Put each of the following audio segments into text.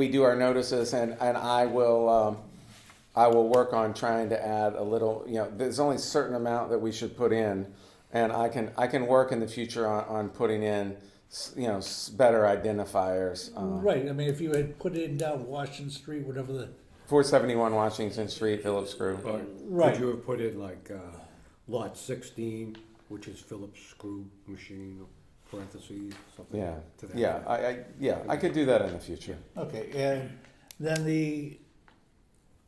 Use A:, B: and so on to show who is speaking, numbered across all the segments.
A: we do our notices and, and I will, um, I will work on trying to add a little, you know, there's only a certain amount that we should put in. And I can, I can work in the future on, on putting in, s- you know, s- better identifiers. Um,
B: Right, I mean, if you had put in down Washington Street, whatever the,
A: four seventy-one Washington Street, Phillips Screw.
C: Or
B: Right.
C: Could you have put in like uh, lot sixteen, which is Phillips screw machine, parentheses, something
A: Yeah,
C: to that?
A: yeah, I, I, yeah, I could do that in the future.
B: okay, and then the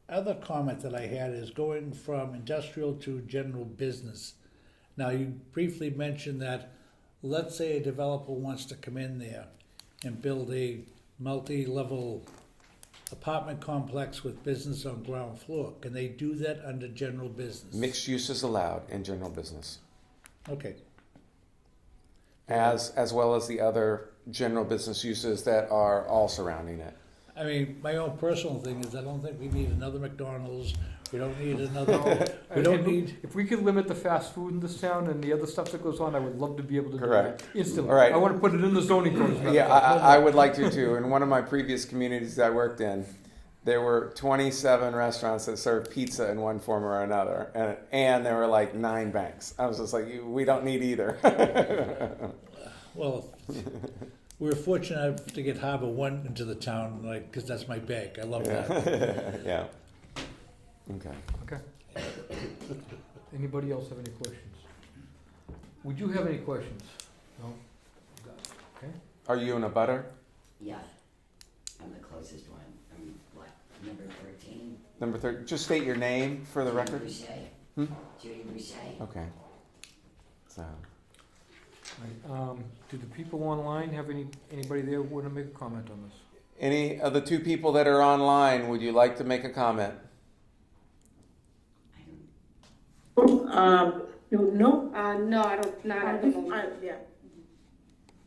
B: other comment that I had is going from industrial to general business. Now, you briefly mentioned that, let's say a developer wants to come in there and build a multi-level apartment complex with business on ground floor, can they do that under general business?
A: Mixed use is allowed in general business,
B: Okay,
A: as, as well as the other general business uses that are all surrounding it.
B: I mean, my own personal thing is I don't think we need another McDonald's. We don't need another. we don't
D: If-
B: need.
D: If we could limit the fast food in this town and the other stuff that goes on, I would love to be able to do
A: Correct.
D: that instantly.
A: All right.
D: I wanna put it in the zoning code. as a matter of
A: Yeah,
D: fact.
A: I, I- I would like to too. In one of my previous communities I worked in, there were 27 restaurants that served pizza in one form or another, and, and there were like nine banks. I was just like, "You- we don't need either.
B: Well, we were fortunate to get Harbor One into the town, like because that's my bank. I love that.
A: yeah. Okay.
D: Okay. Anybody else have any questions? Would you have any questions? No?
A: Are you in a butter?
E: Yeah, I'm the closest one. I'm what, number thirteen?
A: Number three. Just state your name for the record.
E: Boucher.
A: Hmm?
E: Judy Boucher.
A: Okay. So,
D: Um, do the people online have any, anybody there wanna make a comment on this?
A: any of the two people that are online, would you like to make a comment?
E: I don't,
F: Um, no, no,
G: Uh, no, I don't, not at the moment.
F: I, yeah.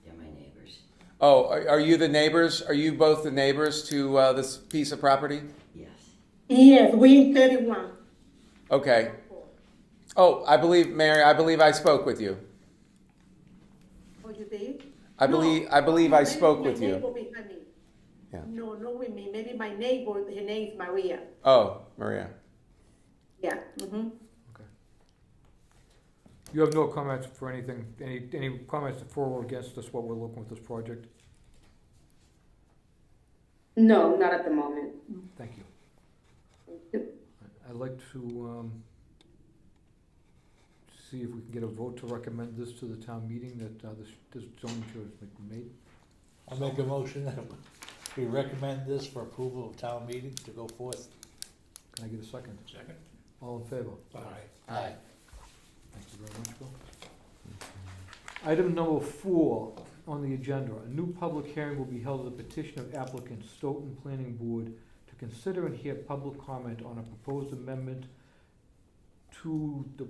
E: they're my neighbors.
A: Oh, are, are you the neighbors? Are you both the neighbors to uh, this piece of property?
E: Yes.
F: Yes, we in thirty-one.
A: Okay. Oh, I believe Mary. I believe I spoke with you.
F: Oh, you did?
A: I
F: No.
A: believe I believe I
F: Maybe
A: spoke
F: my
A: with you.
F: neighbor behind me.
A: Yeah.
F: No, not with me, maybe my neighbor, her name's Maria,
A: Oh, Maria.
F: yeah, mm-hmm.
D: You have no comments for anything, any, any comments for or against us, what we're looking with this project?
G: No, not at the moment.
D: Thank you.
G: you.
D: I- I'd like to, um, see if we can get a vote to recommend this to the town meeting that, uh, this, this zoning change has been made.
B: I'll make a motion that we recommend this for approval of town meeting to go forth.
D: Can I get a second?
B: Second.
D: All in favor?
B: All right.
D: Thank you very much, Bill. Item number four on the agenda, a new public hearing will be held at the petition of applicant Stoughton Planning Board to consider and hear public comment on a proposed amendment to the,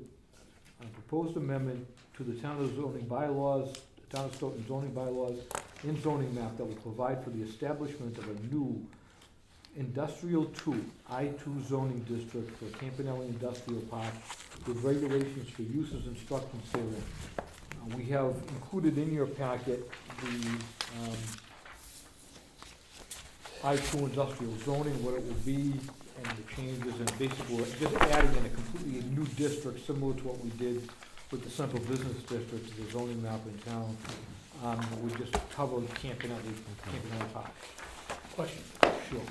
D: a proposed amendment to the town of zoning bylaws, town of Stoughton zoning bylaws and zoning map that will provide for the establishment of a new industrial two, I two zoning district for Campanelli Industrial Park with regulations for uses and structures therein. Uh, We have included in your packet the um, I-2 industrial zoning, what it will be, and the changes, and basically, we're just adding in a completely new district, similar to what we did with the central business district, the zoning map in town. Um, We just covered Campanelli, Campanelli Park.
H: Question,
D: Sure.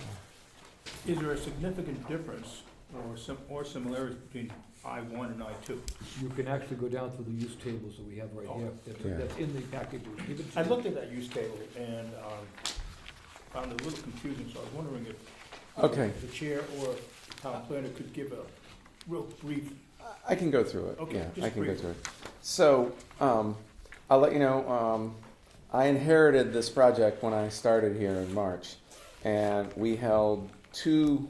H: is there a significant difference or some, or similarities between I one and I two?
D: You can actually go down through the use tables that we have right
C: Oh.
D: here,
A: Yeah.
D: that's- that's in the package. we were given to
H: I
D: you.
H: looked at that use table and, um, found it a little confusing, so I was wondering if
A: Okay,
H: the chair or town planner could give a real brief,
A: I- I can go through it.
H: Okay,
A: yeah,
H: just
A: I can go
H: brief.
A: through it. So, um, I'll let you know. Um, I inherited this project when I started here in March, and we held two,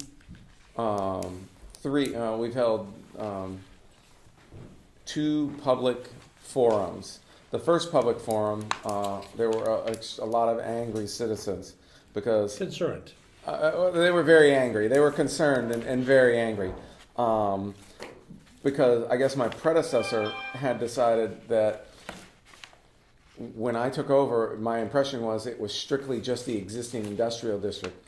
A: um, three. Uh, we've held um, two public forums. The first public forum, uh, there were a, a- a lot of angry citizens because
B: Concerned.
A: uh, Uh, they were very angry. They were concerned and, and very angry. Um, because I guess my predecessor had decided that when I took over, my impression was it was strictly just the existing industrial district.